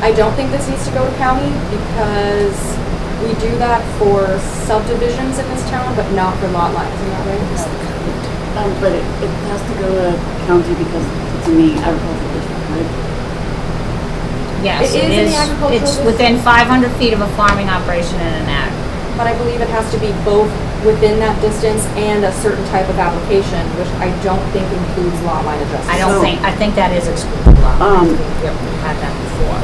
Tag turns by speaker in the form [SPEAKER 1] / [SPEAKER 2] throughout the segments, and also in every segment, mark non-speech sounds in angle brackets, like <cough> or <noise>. [SPEAKER 1] I don't think this needs to go to county because we do that for subdivisions in this town, but not for lot lines, isn't that right?
[SPEAKER 2] Um, but it, it has to go to county because it's in the agricultural district, right?
[SPEAKER 3] Yes,
[SPEAKER 1] It is
[SPEAKER 3] it
[SPEAKER 1] in the
[SPEAKER 3] is,
[SPEAKER 1] agricultural
[SPEAKER 3] it's
[SPEAKER 1] district.
[SPEAKER 3] within five hundred feet of a farming operation and an ag.
[SPEAKER 1] But I believe it has to be both within that distance and a certain type of application, which I don't think includes lot line adjustments.
[SPEAKER 3] I don't
[SPEAKER 2] So-
[SPEAKER 3] think, I think that is excluded law.
[SPEAKER 2] Um,
[SPEAKER 3] Yep, we've had that before.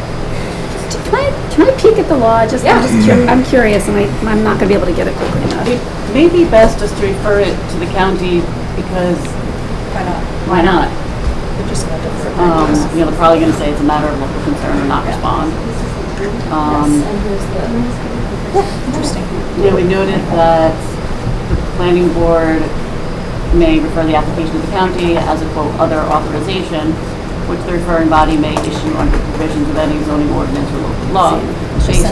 [SPEAKER 4] Can I, can I peek at the law? Just, I'm just curious, I'm curious and I, I'm not gonna be able to get it quickly enough.
[SPEAKER 2] It may be best just to refer it to the county because
[SPEAKER 1] Why not?
[SPEAKER 2] why not?
[SPEAKER 1] We're just gonna defer.
[SPEAKER 2] Um, you know, they're probably gonna say it's a matter of local concern and not respond. Um,
[SPEAKER 1] And here's the.
[SPEAKER 2] you know, we noted that the planning board may refer the application to the county as a quote, other authorization, which the referring body may issue under provisions of any zoning ordinance or local law. Based-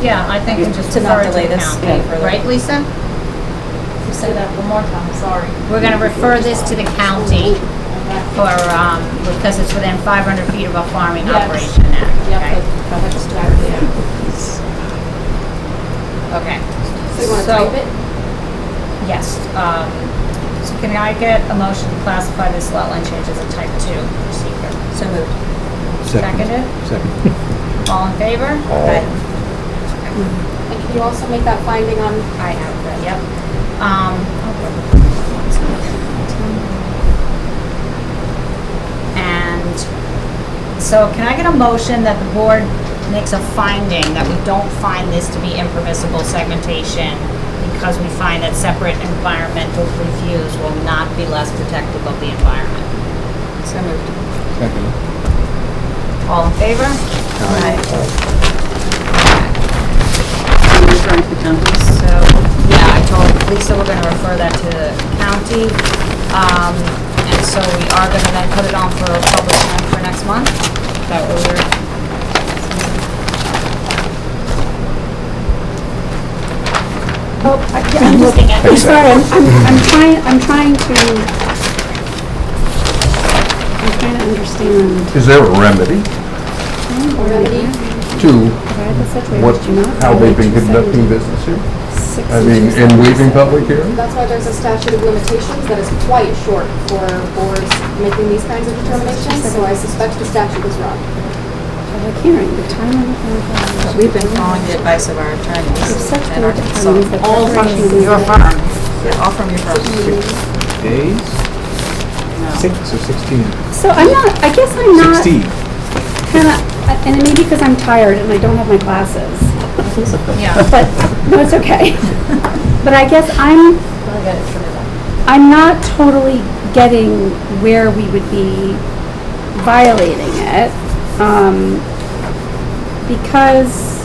[SPEAKER 3] Yeah, I think
[SPEAKER 2] Yeah.
[SPEAKER 3] it just
[SPEAKER 5] To not
[SPEAKER 3] refer it to
[SPEAKER 5] delay
[SPEAKER 3] the
[SPEAKER 5] this
[SPEAKER 3] county.
[SPEAKER 2] any
[SPEAKER 5] further.
[SPEAKER 3] Right, Lisa?
[SPEAKER 5] You said that one more time, sorry.
[SPEAKER 3] We're gonna refer this to the county for, um, because it's within five hundred feet of a farming
[SPEAKER 5] Yes.
[SPEAKER 3] operation and ag,
[SPEAKER 5] Yep,
[SPEAKER 3] okay?
[SPEAKER 5] that's exactly it.
[SPEAKER 3] Okay.
[SPEAKER 1] So you wanna type it?
[SPEAKER 3] Yes, um, so can I get a motion to classify this lot line change as a type two procedure?
[SPEAKER 5] So moved.
[SPEAKER 3] Seconded?
[SPEAKER 6] Second.
[SPEAKER 3] All in favor?
[SPEAKER 5] Aye.
[SPEAKER 1] And can you also make that finding on,
[SPEAKER 3] I have that, yep. Um, And so can I get a motion that the board makes a finding that we don't find this to be impermissible segmentation because we find that separate environmental reviews will not be less protective of the environment?
[SPEAKER 5] So moved.
[SPEAKER 6] Second.
[SPEAKER 3] All in favor?
[SPEAKER 5] Aye.
[SPEAKER 2] Are you referring to the county?
[SPEAKER 3] So, yeah, I told Lisa we're gonna refer that to the county. Um, and so we are gonna then put it on for a public hearing for next month. Is that what we're?
[SPEAKER 4] Oh, I- yeah, I'm just-
[SPEAKER 3] looking at
[SPEAKER 4] I'm sorry, I'm, I'm I'm trying, I'm trying to, I'm trying to understand.
[SPEAKER 6] Is there a remedy
[SPEAKER 1] remedy?
[SPEAKER 6] to what, how they've been conducting
[SPEAKER 4] this?
[SPEAKER 6] business here? I mean, in waiving public hearing?
[SPEAKER 1] That's why there's a statute of limitations that is quite short for boards making these kinds of determinations, so I suspect the statute is wrong.
[SPEAKER 4] Public hearing, the time of the public hearing.
[SPEAKER 5] We've been following the advice of our attorneys
[SPEAKER 4] Such
[SPEAKER 5] and our
[SPEAKER 4] board determines that
[SPEAKER 5] consultant. All from
[SPEAKER 4] preparation is
[SPEAKER 5] your
[SPEAKER 4] not-
[SPEAKER 5] firm. All from your firm.
[SPEAKER 6] Days? Six or sixteen?
[SPEAKER 4] So I'm not, I guess I'm not
[SPEAKER 6] Sixteen.
[SPEAKER 4] kinda, and it may be because I'm tired and I don't have my glasses.
[SPEAKER 3] Yeah.
[SPEAKER 4] but no, it's okay. <laughs> but I guess I'm I'm not totally getting where we would be violating it um, because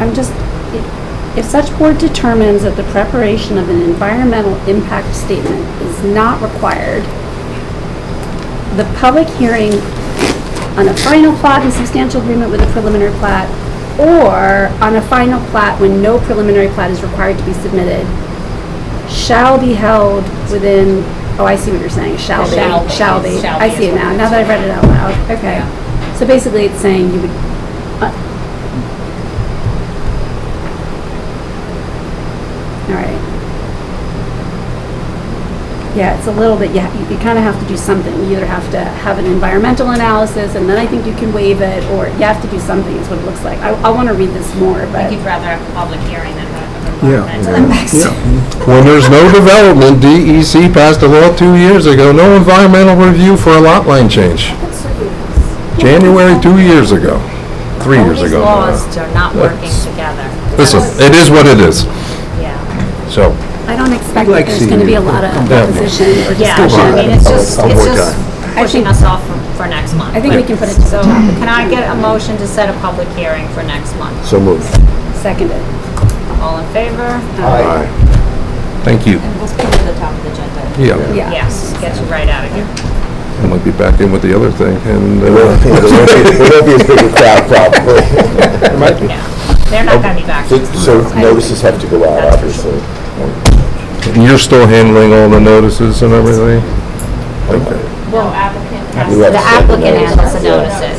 [SPEAKER 4] I'm just i- if such board determines that the preparation of an environmental impact statement is not required, the public hearing on a final plat in substantial agreement with a preliminary plat, or on a final plat when no preliminary plat is required to be submitted, shall be held within, oh, I see what you're saying, shall be,
[SPEAKER 3] Shall be,
[SPEAKER 4] shall be.
[SPEAKER 3] shall
[SPEAKER 4] I
[SPEAKER 3] be
[SPEAKER 4] see
[SPEAKER 3] is
[SPEAKER 4] it
[SPEAKER 3] what
[SPEAKER 4] now,
[SPEAKER 3] it
[SPEAKER 4] now
[SPEAKER 3] is.
[SPEAKER 4] that I've read it out loud, okay. So basically, it's saying you would, uh, all right. Yeah, it's a little bit, you, you kind of have to do something. You either have to have an environmental analysis, and then I think you can waive it, or you have to do something, is what it looks like. I, I want to read this more,
[SPEAKER 3] I
[SPEAKER 4] but,
[SPEAKER 3] think you'd rather have a public hearing than have an environmental impact.
[SPEAKER 6] Yeah. <laughs> When there's no development, DEC passed a law two years ago, no environmental review for a lot line change. January two years ago, three years ago.
[SPEAKER 3] All these laws are not working
[SPEAKER 6] That's-
[SPEAKER 3] together,
[SPEAKER 6] Listen, it is what it is,
[SPEAKER 3] yeah.
[SPEAKER 6] so.
[SPEAKER 4] I don't expect
[SPEAKER 6] like
[SPEAKER 4] that there's going to be
[SPEAKER 6] seeing
[SPEAKER 4] a
[SPEAKER 6] you.
[SPEAKER 4] lot of
[SPEAKER 6] Come down here.
[SPEAKER 4] opposition or
[SPEAKER 3] Yeah, I mean,
[SPEAKER 4] discussion.
[SPEAKER 3] it's just,
[SPEAKER 6] I'll
[SPEAKER 3] it's
[SPEAKER 6] boycott.
[SPEAKER 3] just pushing us off for- for next month.
[SPEAKER 4] I think we can put it to
[SPEAKER 3] So
[SPEAKER 4] the top,
[SPEAKER 3] can I get a motion to set a public hearing for next month?
[SPEAKER 6] So moved.
[SPEAKER 4] seconded.
[SPEAKER 3] All in favor?
[SPEAKER 6] Aye. Thank you.
[SPEAKER 5] And let's put it at the top of the agenda.
[SPEAKER 6] Yeah,
[SPEAKER 4] Yeah.
[SPEAKER 3] Yes, get you right out of here.
[SPEAKER 6] I might be back in with the other thing and.
[SPEAKER 7] There won't be- there won't be- there won't be as big a crowd probably.
[SPEAKER 3] Yeah, they're not gonna be back.
[SPEAKER 7] So- So notices have to go out, obviously.
[SPEAKER 6] You're still handling all the notices and everything?
[SPEAKER 3] Well, applicant.
[SPEAKER 7] You have
[SPEAKER 3] The
[SPEAKER 7] to send the
[SPEAKER 3] applicant
[SPEAKER 7] notice.
[SPEAKER 3] handles the notices.